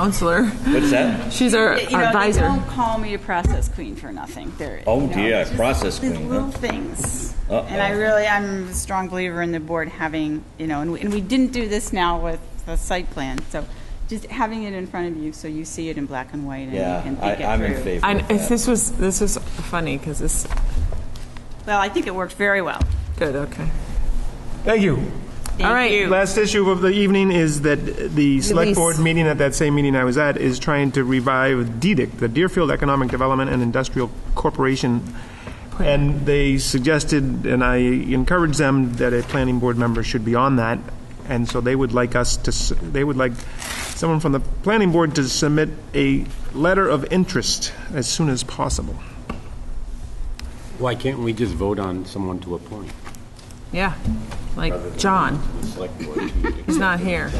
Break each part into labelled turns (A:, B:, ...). A: counselor.
B: What's that?
A: She's our
C: You
A: our
C: know, they
A: advisor.
C: don't call me a process queen for nothing. They're,
B: Oh,
C: you know,
B: dear,
C: it's just
B: process
C: these
B: queen, huh?
C: Little things.
B: Uh-oh.
C: And I really, I'm a strong believer in the board having, you know, and we, and we didn't do this now with the site plan, so just having it in front of you so you see it in black and white and you
B: Yeah,
C: can think it
B: I,
C: through.
B: I'm in favor
A: And
B: of
A: if
B: that.
A: this was this was funny because this
C: Well, I think it worked very well.
A: good okay.
D: Thank you.
A: All right.
C: you.
D: Last issue of the evening is that the select
A: Release.
D: board meeting at that same meeting I was at is trying to revive DEDIC, the Deerfield Economic Development and Industrial Corporation. And they suggested, and I encouraged them, that a planning board member should be on that. And so they would like us to, s- they would like someone from the planning board to submit a letter of interest as soon as possible.
E: Why can't we just vote on someone to appoint?
A: Yeah, like John. He's not here.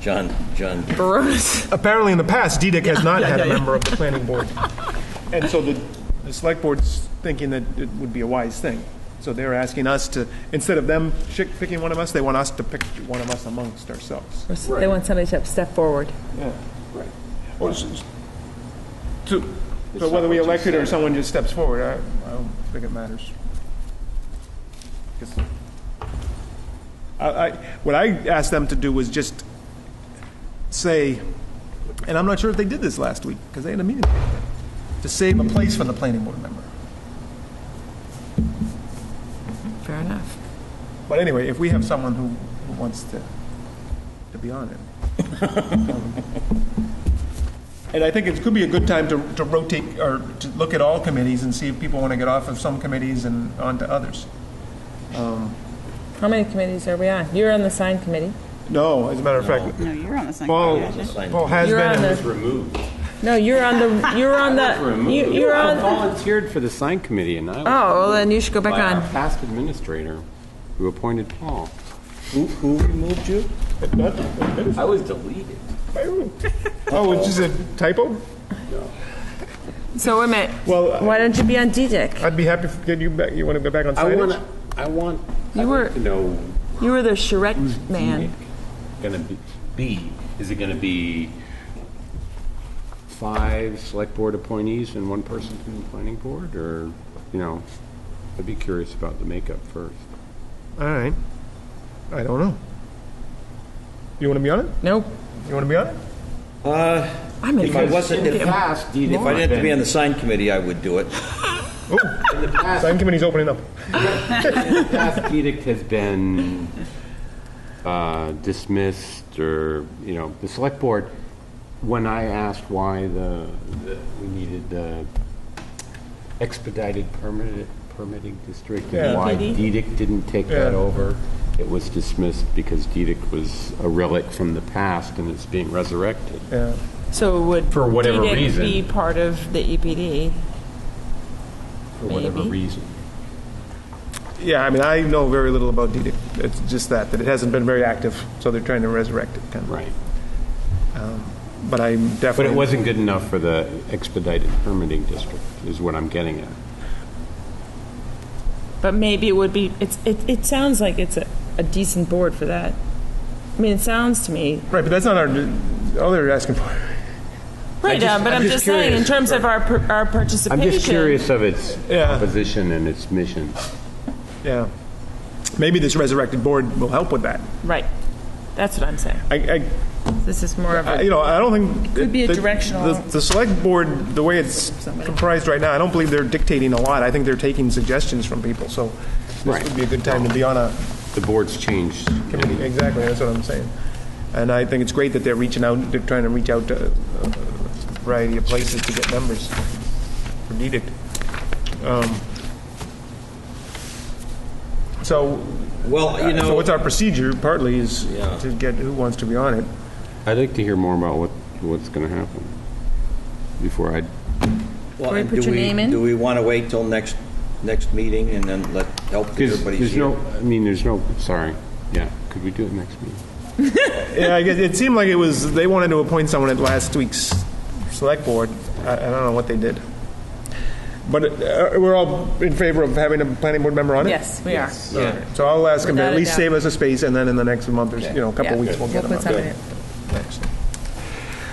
B: John, John,
A: Barros.
D: apparently in the past, DDIC has not had a member of the planning board. And so the, the select board's thinking that it would be a wise thing. So they're asking us to, instead of them shi- picking one of us, they want us to pick one of us amongst ourselves.
A: They want somebody to step forward.
D: So whether we elect it or someone just steps forward, I, I don't think it matters. 'Cause I, I, what I asked them to do was just say, and I'm not sure if they did this last week, because they had a meeting, to save a place for the planning board member.
A: Fair enough.
D: But anyway, if we have someone who, who wants to, to be on it. And I think it could be a good time to, to rotate, or to look at all committees and see if people want to get off of some committees and onto others.
A: How many committees are we on? You're on the sign committee.
D: No, as a matter of fact,
C: No, you're almost like.
D: Paul, Paul has
A: You're on
D: been,
A: the.
D: and-
E: Removed.
A: No, you're on the. You're on the. You, you're
E: I
A: on. Oh,
E: volunteered for the sign committee, and I was...
A: well, then you should go back
E: By our
A: on.
E: past administrator, who appointed Paul.
B: who, who removed you? I was deleted.
D: oh, which is a typo?
A: So wait a minute.
D: Well,
A: Why don't you be on DDIC?
D: I'd be happy to get you back, you want to go back on
E: I want,
D: signage?
E: I want,
A: You
E: I
A: were-
E: want to know...
A: You were the charrette man.
E: Going to be, is it going to be five select board appointees and one person from the planning board, or, you know, I'd be curious about the makeup first.
D: All right. I don't know. You want to be on it?
A: Nope.
D: You want to be on it?
A: I'm in.
B: If I wasn't, if, if
E: past, DDIC
B: I didn't have to be
E: been-
B: on the sign committee, I would do it.
D: Sign committee's opening up.
E: past edict has been uh, dismissed, or, you know, the select board, when I asked why the, the- we needed the expedited permit- permitting district, and
D: Yeah.
E: why edict didn't take that
D: Yeah.
E: over, it was dismissed because edict was a relic from the past, and it's being resurrected.
D: Yeah.
A: So would
E: For whatever
A: DDIC
E: reason.
A: be part of the E EPD?
E: For whatever
A: Maybe.
E: reason.
D: Yeah, I mean, I know very little about DDIC. It's just that, that it hasn't been very active, so they're trying to resurrect it, kind of.
E: Right.
D: But I'm
E: But
D: definitely.
E: it wasn't good enough for the expedited permitting district, is what I'm getting at.
A: But maybe it would be. It's. It. It sounds like it's a, a decent board for that. I mean, it sounds to me.
D: Right, but that's not our, all they're asking for.
A: Right,
E: just-
A: uh, but
E: I'm
A: I'm,
E: just
A: just saying, in
E: curious.
A: terms of our per, our participation.
E: I'm just curious of its
D: Yeah.
E: composition and its mission.
D: Yeah. Maybe this resurrected board will help with that.
A: Right. That's what I'm saying.
D: I,
A: This is more of
D: I, I-
A: a.
D: you know, I don't think.
A: could be a
D: the-
A: directional-
D: The, the select board, the way it's comprised right now, I don't believe they're dictating a lot. I think they're taking suggestions from people, so this
E: Right.
D: would be a good time to be on a,
E: The board's changed.
D: committee. Exactly, that's what I'm saying. And I think it's great that they're reaching out, they're trying to reach out to a variety of places to get members for DEDIC. Um, So,
B: Well, you
D: so
B: know,
D: what's our procedure partly is
B: Yeah.
D: to get who wants to be on it.
E: I'd like to hear more about what, what's going to happen before I,
B: well,
A: Can we
B: and
A: put
B: do
A: your
B: we,
A: name in?
B: do we want to wait till next, next meeting and then let, help
E: because
B: everybody
E: there's
B: see?
E: no,
B: it?
E: I mean, there's no, sorry, yeah, could we do it next meeting?
D: Yeah, I guess it seemed like it was, they wanted to appoint someone at last week's select board. I, I don't know what they did. But uh, we're all in favor of having a planning board member on it?
A: yes, we are.
D: So I'll ask him to
A: Without
D: at
A: a
D: least
A: doubt.
D: save us a space, and then in the next month, or s- you know, a couple
A: Yeah.
D: weeks, we'll get
A: We'll
D: him
A: put
D: up.
A: something in.
D: Next.